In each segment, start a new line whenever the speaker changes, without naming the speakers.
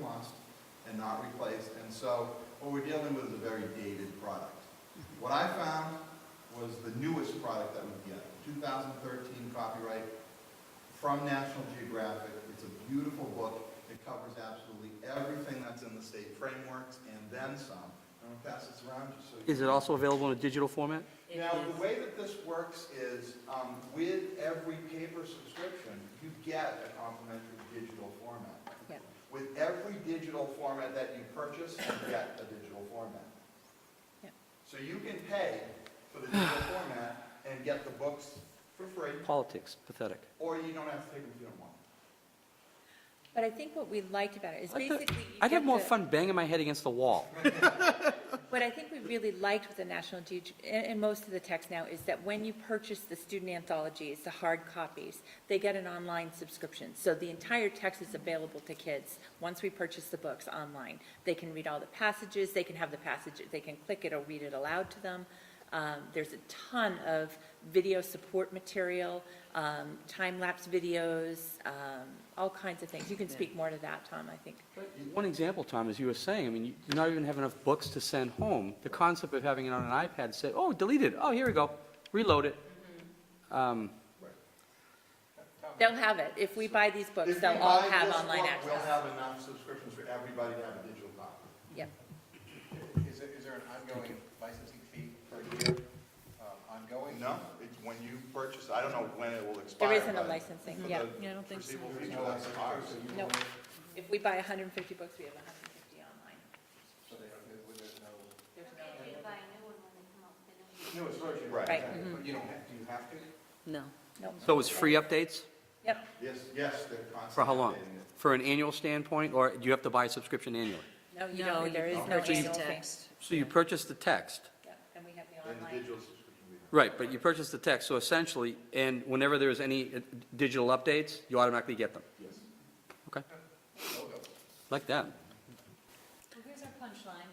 must and not replaced. And so what we're dealing with is a very dated product. What I found was the newest product that we get, 2013 copyright from National Geographic. It's a beautiful book. It covers absolutely everything that's in the state frameworks and then some. I'm gonna pass this around just so you.
Is it also available in a digital format?
It
Now,
is-
the way that this works is, um, with every paper subscription, you get a complimentary digital format.
Yep.
With every digital format that you purchase, you get a digital format.
Yep.
So you can pay for the digital format and get the books for free,
Politics, pathetic.
or you don't have to take them if you don't want. them.
But I think what we liked about it is
I'd have-
basically. you
I'd have
get
more
the-
fun banging my head against the wall.
What I think we really liked with the National Geog, and, and most of the text now, is that when you purchase the student anthologies, the hard copies, they get an online subscription. So the entire text is available to kids once we purchase the books online. They can read all the passages, they can have the passage, they can click it or read it aloud to them. Um, there's a ton of video support material, um, time-lapse videos, um, all kinds of things. You can speak more to that, Tom, I think.
One example, Tom, as you were saying, I mean, you not even have enough books to send home. The concept of having it on an iPad said, oh, delete it, oh, here we go, reload it. Um,
They'll have it. If we buy these
If
books,
you
they'll all
buy
have
this
online
book, We'll
access.
have enough subscriptions for everybody to have a digital copy.
Yep.
Is there, is there an ongoing licensing fee per year, um, ongoing?
No, it's when you purchase, I don't know when it will expire.
There isn't a
but
licensing,
for
yeah.
the
Yeah, I don't think so.
foreseeable
There's
future,
no
that's
licensing
ours.
fee, so you
No.
won't-
If we buy 150 books, we have 150 online.
So they don't, there- there's no,
There's no-
Maybe you buy a
né,
new one when they come up with a new one.
no, it's virtually.
Right.
Right.
But you don't have, do you have to?
No.
Nope.
So it's free updates?
Yep,
Yes, yes, they're constantly.
For how long?
updating it.
For an annual standpoint, or do you have to buy a subscription annually?
no, you don't, there is
can
no
purchase
annual
the
fee.
text.
So you purchase the text,
Yep, And we have the
And the
online.
digital subscription. we have.
right, but you purchase the text, so essentially, and whenever there's any uh, digital updates, you automatically get them. Yes. Okay. Like that.
Well, here's our punchline.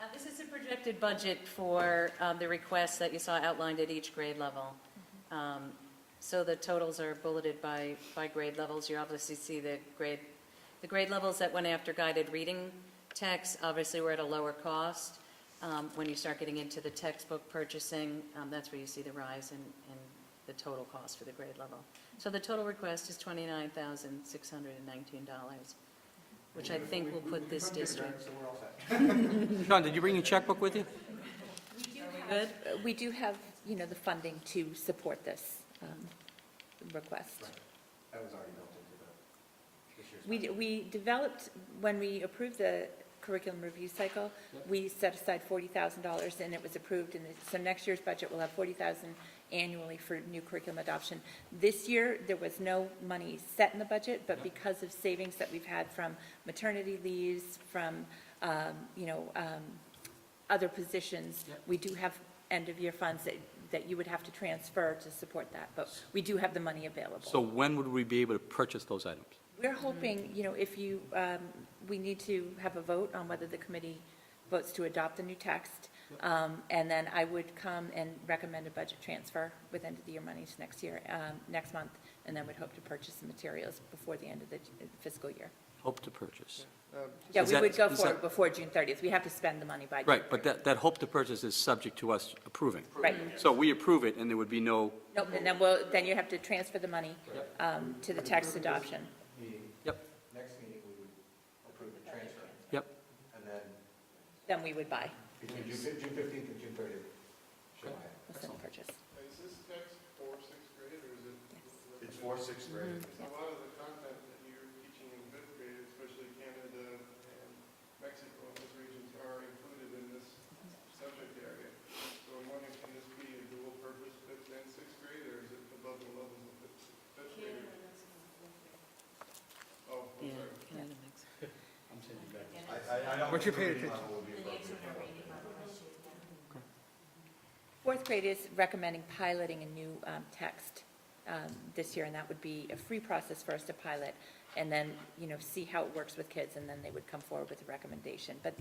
Uh, This is a projected budget for um, the requests that you saw outlined at each grade level. Um, So the totals are bulleted by, by grade levels. You obviously see the grade, the grade levels that went after guided reading texts, obviously were at a lower cost. Um, When you start getting into the textbook purchasing, um, that's where you see the rise in, in the total cost for the grade level. So the total request is $29,619, which I think will put this district.
So we're all set.
John, did you bring your checkbook with you?
Good?
Uh, We do have, you know, the funding to support this um, request.
That was already built into the, this year's.
We, d- we developed, when we approved the curriculum review cycle, we set aside forty thousand dollars, and it was approved, and so next year's budget will have forty thousand annually for new curriculum adoption. This year, there was no money set in the budget, but because of savings that we've had from maternity leaves, from, um, you know, um, other positions, we do have end-of-year funds that, that you would have to transfer to support that, but we do have the money available.
So when would we be able to purchase those items?
We're
Mm-hmm.
hoping, you know, if you, um, we need to have a vote on whether the committee votes to adopt the new text. Um, And then I would come and recommend a budget transfer with end-of-the-year monies next year, um, next month, and then would hope to purchase the materials before the end of the uh, fiscal year.
Hope to purchase.
Yeah,
Is
we
that-
would go
is
forward
that-
before June 30th. We have to spend the money by. June
Right, but
30th.
that, that hope to purchase is subject to us approving.
Right.
So we approve it, and there would be no,
Nope, and then we'll, then you have to transfer the money um, to the text adoption.
Meeting,
yep,
next meeting, we would approve the transfer,
yep.
and then
Then we would buy,
between June fif- June fifteenth and June thirtieth, should I?
listen, purchase.
Is this text for sixth grade, or is it?
It's for sixth
Mm-hmm.
grade.
A lot of the content that you're teaching in fifth grade, especially Canada and Mexico, those regions are included in this subject area. So I'm wondering, can this be a dual purpose fifth and sixth grade, or is it above the levels of fifth fifth grade? Oh, I'm
Yeah,
sorry.
kind of mix.
I- I- I don't
What's your
think the
pay
level will be appropriate.
Fourth grade is recommending piloting a new um, text um, this year, and that would be a free process for us to pilot, and then, you know, see how it works with kids, and then they would come forward with a recommendation. But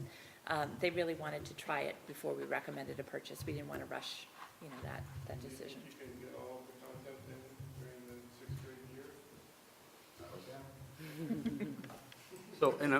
um, they really wanted to try it before we recommended a purchase. We didn't want to rush, you know, that, that
Do you
decision.
think you can get all of the content in during the sixth grade year?
So, and uh,